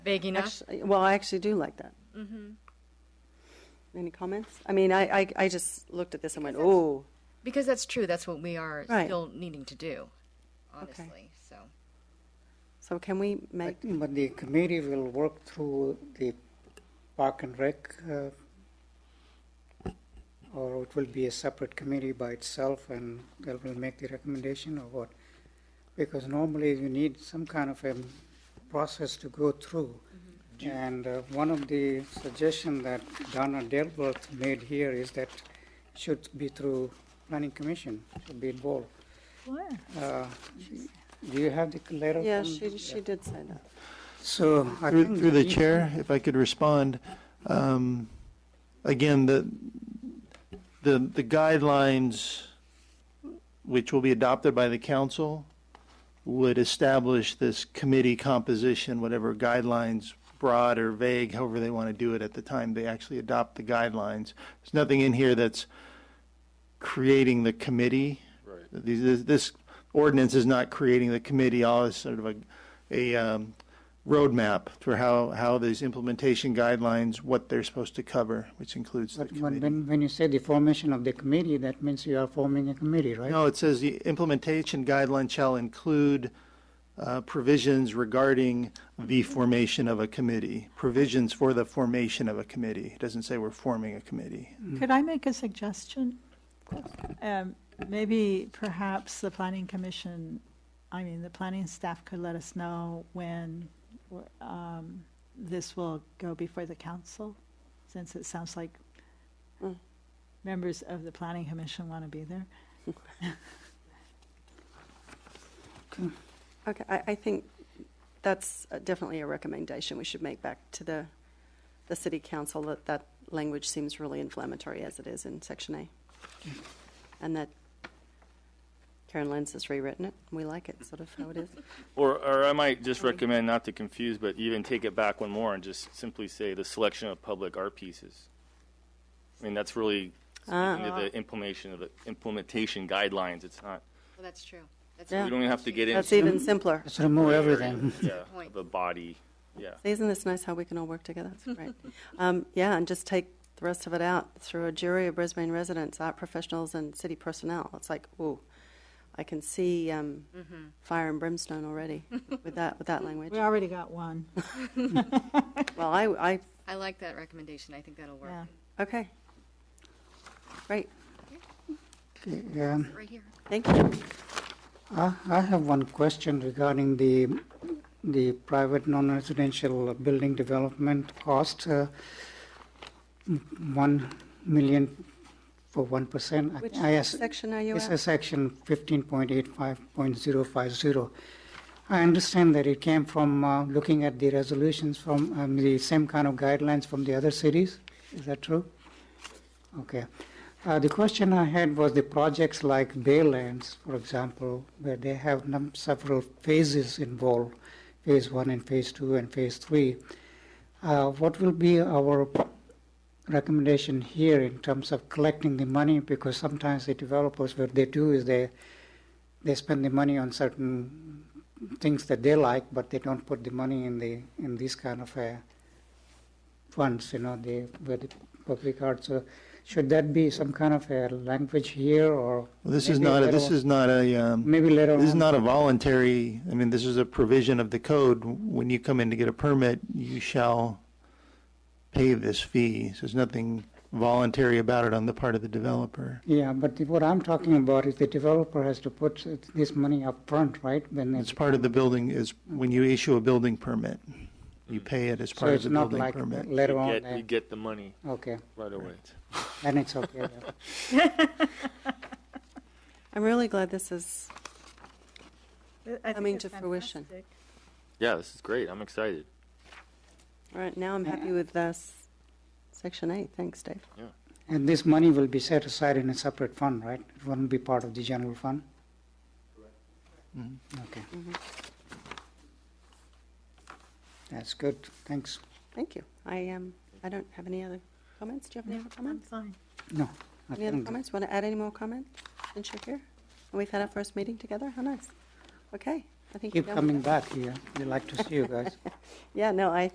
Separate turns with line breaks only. Vague enough?
Actually, well, I actually do like that. Any comments? I mean, I, I, I just looked at this and went, oh,
Because that's true, that's what we are
Right.
still needing to do, honestly, so.
so can we
I
make,
think But the committee will work through the park and rec, uh, or it will be a separate committee by itself and they will make the recommendation or what? Because normally you need some kind of a process to go through.
Mm-hmm.
And uh, one of the suggestion that Donna Delbert made here is that should be through planning commission, should be involved. Uh, Do you have the letter?
yeah,
from-
she, she did say that.
so I
Through,
think
through the
each-
chair, if I could respond, um, again, the, the, the guidelines which will be adopted by the council would establish this committee composition, whatever guidelines, broad or vague, however they want to do it at the time they actually adopt the guidelines. There's nothing in here that's creating the committee. Right. This, this ordinance is not creating the committee, all is sort of a, a um, roadmap for how, how these implementation guidelines, what they're supposed to cover, which includes the
But when,
committee.
when- when you say the formation of the committee, that means you are forming a committee, right?
No, it says the implementation guideline shall include uh, provisions regarding the formation of a committee, provisions for the formation of a committee. It doesn't say we're forming a committee.
Could I make a suggestion? Um, Maybe perhaps the planning commission, I mean, the planning staff could let us know when um, this will go before the council, since it sounds like
Hmm.
members of the planning commission want to be there.
Okay, I, I think that's definitely a recommendation we should make back to the, the city council, that that language seems really inflammatory as it is in section A. And that Karen Lenz has rewritten it, we like it, sort of how it is.
Or, or I might just recommend not to confuse, but even take it back one more and just simply say the selection of public art pieces. I mean, that's really speaking to the implementation of the implementation guidelines. It's not,
Well, that's true. That's
Yeah.
a
we don't have to get into.
That's even simpler.
Let's remove everything.
Yeah,
Point.
of a body, yeah.
See, Isn't this nice how we can all work together? That's great. Um, yeah, and just take the rest of it out through a jury of Brisbane residents, art professionals, and city personnel. It's like, ooh, I can see um, fire and brimstone already with that with that language.
We already got one.
Well, I, I
I like that recommendation, I think that'll work.
Yeah.
okay, great.
Yeah.
Right here.
Thank you.
I, I have one question regarding the, the private non-residential building development cost. uh, m- One million for one percent.
Which
I ask-
section are you
This
at?
is section fifteen point eight five point zero five zero. I understand that it came from, uh, looking at the resolutions from, um, the same kind of guidelines from the other cities. Is that true? Okay. Uh, the question I had was the projects like Baylands, for example, where they have num- several phases involved, phase one and phase two and phase three. Uh, what will be our recommendation here in terms of collecting the money? Because sometimes the developers, what they do is they they spend the money on certain things that they like, but they don't put the money in the in these kind of uh, funds, you know, the where the public art. So, should that be some kind of a language here, or
Well, This is
maybe
not, a-
later
this
on-
is not a, um,
maybe later
This is
on?
not a voluntary, I mean, this is a provision of the code. When you come in to get a permit, you shall pay this fee. So there's nothing voluntary about it on the part of the developer.
yeah, but the, what I'm talking about is the developer has to put this money up front, right? When
It's part of the building is, when you issue a building permit, you pay it as
so
part of
it's
the
not
building
like
permit.
We
later on.
get,
uh,
we get the money
okay,
right away.
then it's okay. yeah.
I'm really glad this is
I
Coming to fruition.
Yeah, this is great. I'm excited.
all right now. I'm happy with this section eight. Thanks, Dave.
And this money will be set aside in a separate fund, right? It won't be part of the general fund?
Mm-hmm.
Okay.
Mm-hmm.
That's good, thanks.
Thank you. I um, I don't have any other comments. Do you have any other
I'm
comments?
fine.
No. I
Any other
think-
comments? Want to add any more comment since you're here? And we've had our first meeting together? How nice. Okay, I think. we're
Keep
done with
coming
that.
back here, we like to see you guys.
Yeah, no, I